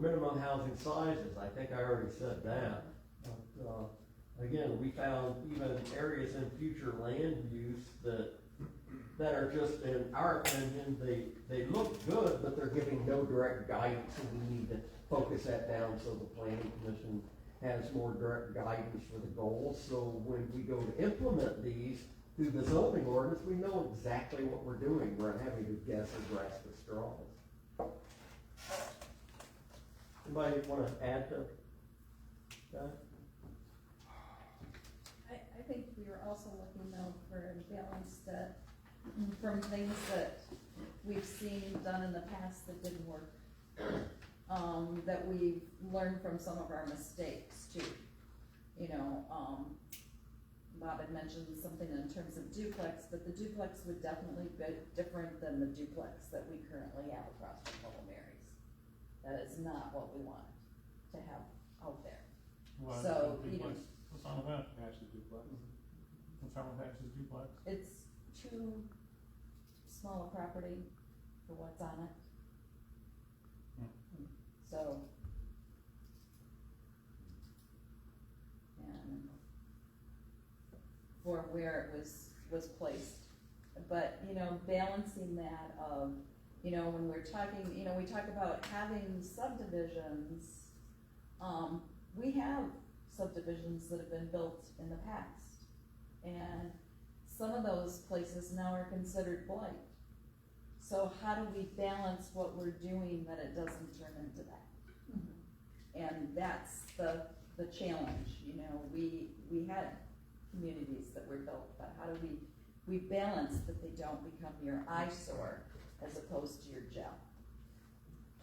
minimum housing sizes, I think I already said that. But, uh, again, we found even areas in future land use that, that are just, in our opinion, they, they look good, but they're giving no direct guidance, and we need to focus that down so the planning commission has more direct guidance for the goals, so when we go to implement these through the zoning ordinance, we know exactly what we're doing, we're not having to guess or grasp at straws. Anybody wanna add to that? I, I think we are also looking though for balance that, from things that we've seen done in the past that didn't work. Um, that we've learned from some of our mistakes too. You know, um, Bob had mentioned something in terms of duplex, but the duplex would definitely be different than the duplex that we currently have across from Little Mary's. That is not what we want to have out there. Well, So, it's a you know- duplex. What's wrong with that? Actually duplex. What's wrong with actually duplex? It's too small a property for what's on Hmm. it. So. And for where it was, was placed. But, you know, balancing that of, you know, when we're talking, you know, we talk about having subdivisions. Um, we have subdivisions that have been built in the past. And some of those places now are considered blight. So how do we balance what we're doing that it doesn't turn into that? And that's the, the challenge, you know, we, we had communities that were built, but how do we, we balance that they don't become your eyesore as opposed to your gel?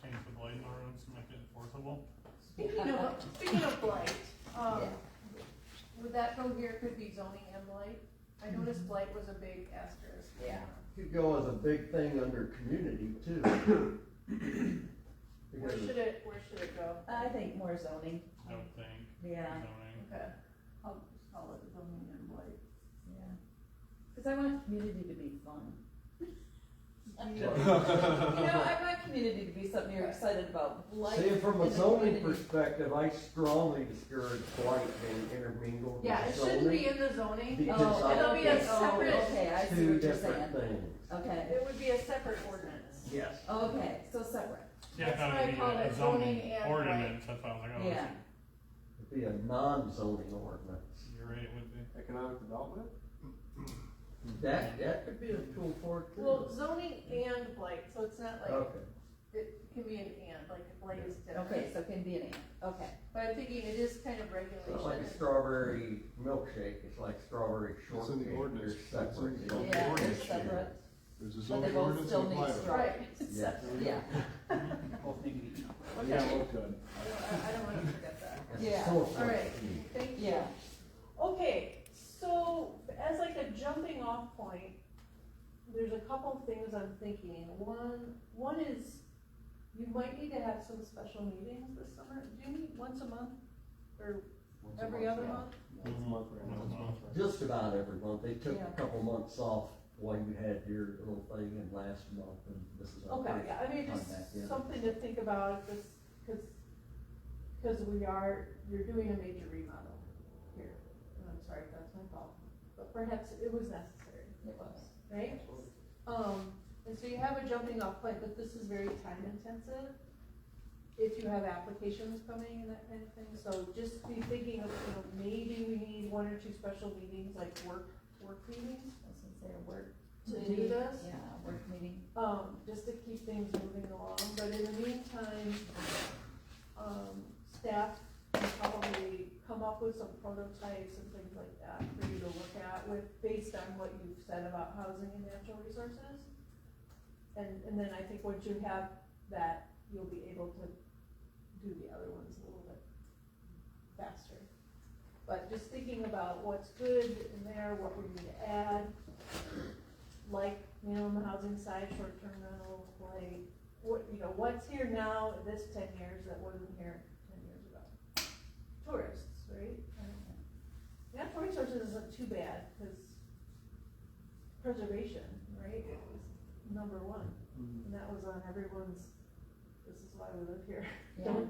Change the blight ordinance to make it enforceable? Speaking of, speaking of blight, um, Yeah. would that go here, could be zoning and blight? I noticed blight was a big asterisk. Yeah. Could go as a big thing under community too. Where Because should it, where should it go? I think more zoning, I would think. yeah. Zoning. Okay, I'll just call it zoning and blight. Yeah, because I want community to be fun. You know, I want community to be something you're excited about, like. See, from a in the zoning community. perspective, I strongly discourage blight being intermingled Yeah, with it shouldn't be zoning. in the zoning, Because Oh, I- it'll be a okay. Oh, separate- Okay, I see uh, Two what you're different saying. Oh. things. Okay, it would be a separate ordinance. Yes. okay, so separate, Yeah, I That's thought why I it'd be called a it uh, zoning zoning and ordinance, that's why I was like, oh, yeah. this- It'd be a non-zoning ordinance. you're right, it would be. Economic development? That, that could be a tool for it too. Well, zoning and blight, so it's not like, Okay. it can be an and, like blight is Okay, different. so can be an and, okay. But I'm thinking it is kind of It's not like a regulation. strawberry milkshake, it's like strawberry It's in the shortcake, they're ordinance. It's in separate. the zoning Yeah, ordinance. it's separate, There's a but they zoning both ordinance still and a need blight. straw. Right. Yeah, Both need to be Okay. Yeah, well, good. I don't, I- I don't wanna forget that. That's Yeah. so All right, funny. thank you. yeah, Okay, so as like a jumping off point, there's a couple of things I'm thinking. One, one is you might need to have some special meetings this summer. Do you meet once a month or Once a every other yeah. month? Once a month right now. Once a month. Just about every month, they took Yeah. a couple months off while you had your little thing in last month, and this is our Okay, first. yeah, I mean, contact, yeah. just something to think about, just, cause, 'cause we are, you're doing a major remodel here. And I'm sorry if that's my fault, but perhaps it was necessary. it was. right? Um, and so you have a jumping off point, but this is very time intensive. If you have applications coming and that kind of thing, so just be thinking of, you know, maybe we need one or two special meetings, like work, work meetings. I was gonna say a work. To do meeting. this? Yeah, a work meeting, Um, just to keep things moving along, but in the meantime, um, staff can probably come up with some prototypes and things like that for you to look at with, based on what you've said about housing and natural resources. And, and then I think once you have that, you'll be able to do the other ones a little bit faster. But just thinking about what's good in there, what we need to add, like minimum housing size, short-term rental, like, what, you know, what's here now, this ten years that wasn't here ten years ago? Tourists, right? I don't know. Natural resources isn't too bad, cause preservation, right, it was number one, and that was on everyone's, this is why we live here. yeah.